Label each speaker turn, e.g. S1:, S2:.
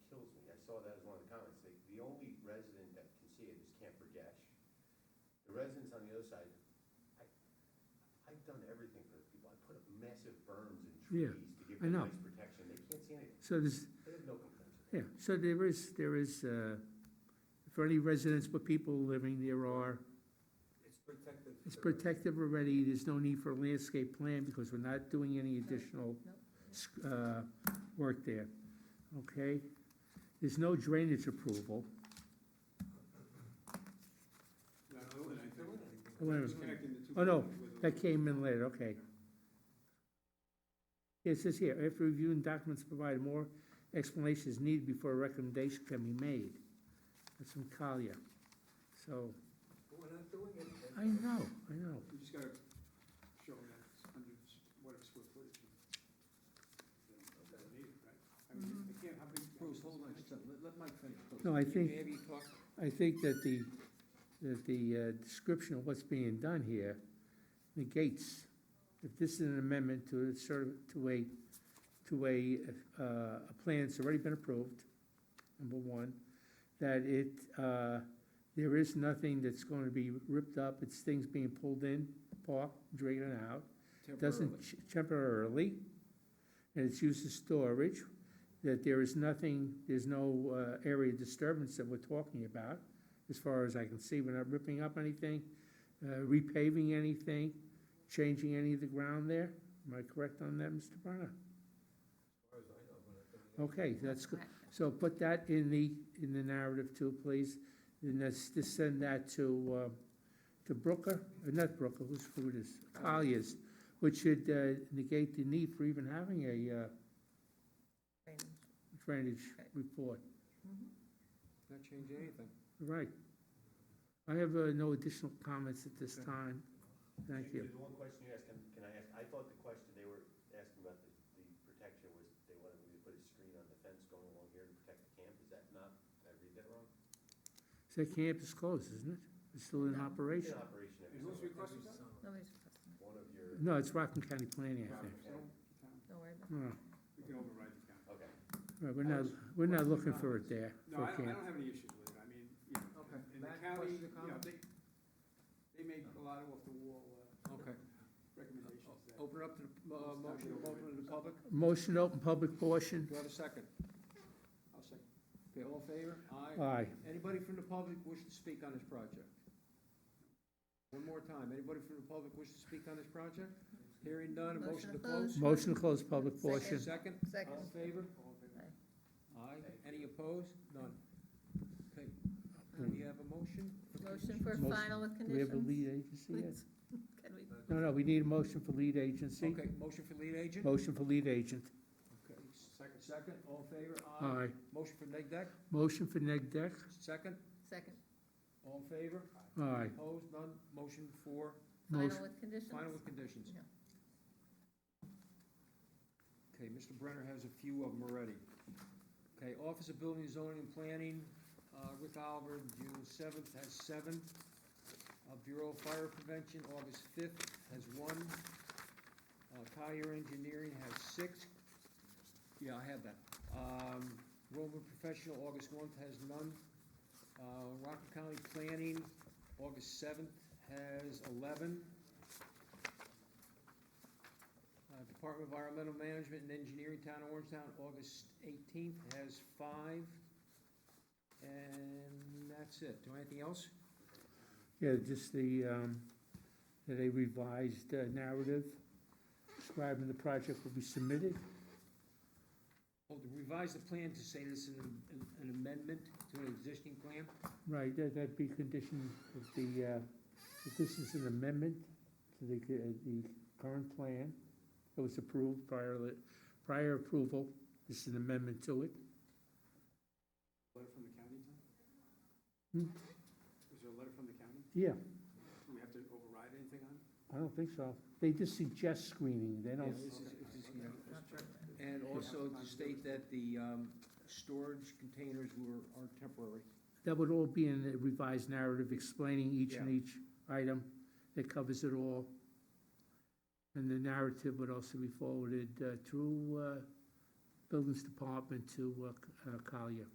S1: Camp Burgess. The residents on the other side, I, I've done everything for those people. I put up massive berms and
S2: Yeah,
S1: trees to give
S2: I
S1: them
S2: know.
S1: nice protection. They can't see anything.
S2: So there's,
S1: They have no complaints.
S2: yeah, so there is, there is, uh, for any residents but people living, there are,
S3: It's protected.
S2: it's
S3: for-
S2: protective already, there's no need for a landscape plan because we're not doing any additional
S4: no.
S2: sc- uh, work there, okay? There's no drainage approval.
S5: No, I wouldn't think-
S3: There weren't any-
S2: I wouldn't-
S5: Just connecting the two
S2: Oh, no,
S5: buildings with a-
S2: That came in later, okay. It says here, after reviewing documents provided, more explanations needed before a recommendation can be made. That's from Collier. So,
S3: But We're not doing anything.
S2: I know, I know.
S5: You just gotta show that it's under s- whatever square footage. you- you don't need it, right? I mean, I can't, how big?
S6: Bruce, hold on, just a- let- let Mike finish. please.
S2: No, I think-
S6: Maybe talk,
S2: I think that the, that the uh, description of what's being done here negates, if this is an amendment to a sort of, to a, to a, uh, a plan that's already been approved, number one, that it, uh, there is nothing that's going to be ripped up, it's things being pulled in, parked, drained out,
S6: temporarily.
S2: doesn't ch- temporarily, and it's used as storage, that there is nothing, there's no uh, area disturbance that we're talking about, as far as I can see, we're not ripping up anything, uh, repaving anything, changing any of the ground there, am I correct on that, Mr. Brenner?
S3: As far as I know, we're not doing anything.
S2: Okay, that's good,
S4: Right.
S2: so put that in the, in the narrative too, please, and let's just send that to, uh, to Brooker, uh, not Brooker, whose food is, Collier's, which should uh, negate the need for even having a uh,
S4: Drainage.
S2: drainage
S4: Right.
S2: report.
S6: Not change anything.
S2: Right. I have uh, no additional comments at this
S6: Okay.
S2: time. Thank you.
S1: The one question you asked him, can I ask, I thought the question they were asking about the, the protection was they wanted me to put a screen on the fence going along here to protect the camp. Is that not, did I read that wrong?
S2: So camp is closed, isn't it? It's still in
S4: No.
S1: In
S2: operation?
S1: operation every
S5: And who's
S1: summer.
S5: requesting that?
S4: Nobody's requesting
S1: One of your,
S2: No, it's Rockland County Planning, I think.
S5: Robert's, no, the town.
S4: it. Don't worry about it.
S2: No,
S5: We can override the town.
S1: okay.
S2: right, we're not, we're not looking for it there, for
S5: No, I don't, I
S2: camp.
S5: don't have any issues with it, I mean, you know,
S6: Okay.
S5: in the
S6: Matt,
S5: county,
S6: questions
S5: you
S6: or
S5: know,
S6: comments?
S5: they, they make a lot of off-the-wall uh,
S6: Okay.
S5: recommendations that.
S6: Open up to the, uh, motion, open to the public.
S2: Motion to open public portion?
S6: Do I have a second?
S5: I'll second.
S6: Okay, all in favor?
S2: Aye.
S6: Aye. Anybody from the public wish to speak on this project? One more time, anybody from the public wish to speak on this project? Hearing none, a motion to close?
S2: Motion to close public portion.
S6: Second? All in
S4: Second.
S6: favor?
S5: All in favor?
S6: Aye. Any opposed? None. Okay, do we have a motion?
S4: Motion for
S2: Motion.
S4: final with
S2: Do we have a
S4: conditions.
S2: lead agency yet?
S4: Please. Can we,
S2: No, no, we need a motion for lead agency.
S6: Okay, motion for lead agent?
S2: Motion for lead agent.
S6: Okay, second, second, all in favor?
S2: Aye.
S6: Motion for neg deck,
S2: Motion for neg deck?
S6: second,
S4: second,
S6: all in favor?
S2: Aye.
S6: Opposed, none, motion for
S4: final
S2: Motion.
S4: with conditions?
S6: final with conditions.
S4: Yeah.
S6: Okay, Mr. Brenner has a few of them already. Okay, Office of Building, Zoning and Planning, uh, Rick Oliver, June seventh, has seven. Uh, Bureau of Fire Prevention, August fifth, has one. Uh, Collier Engineering has six. Yeah, I have that. Um, Roman Professional, August one, has none. Uh, Rockland County Planning, August seventh, has eleven. Uh, Department of Environmental Management and Engineering, Town of Orangetown, August eighteenth, has five. And that's it. Do I have anything else?
S2: Yeah, just the, um, that a revised uh, narrative describing the project will be submitted.
S6: Oh, to revise the plan to say this is an an amendment to an existing plan?
S2: Right, that- that'd be conditioned that the, uh, that this is an amendment to the, uh, the current plan that was approved prior, li- prior approval. This is an amendment to it.
S5: Letter from the county, Tom?
S2: Hmm?
S5: Is there a letter from the county?
S2: Yeah,
S5: Do we have to override anything on it?
S2: I don't think so. They just suggest screening, they don't,
S6: Yeah, this is-
S5: Okay.
S6: this is, you know,
S5: Just check.
S6: And also to state that the um, storage containers were, are temporary.
S2: that would all be in the revised narrative explaining each and each item that covers it all. And the narrative would also be forwarded uh, through uh, Buildings Department to uh, C- uh, Collier.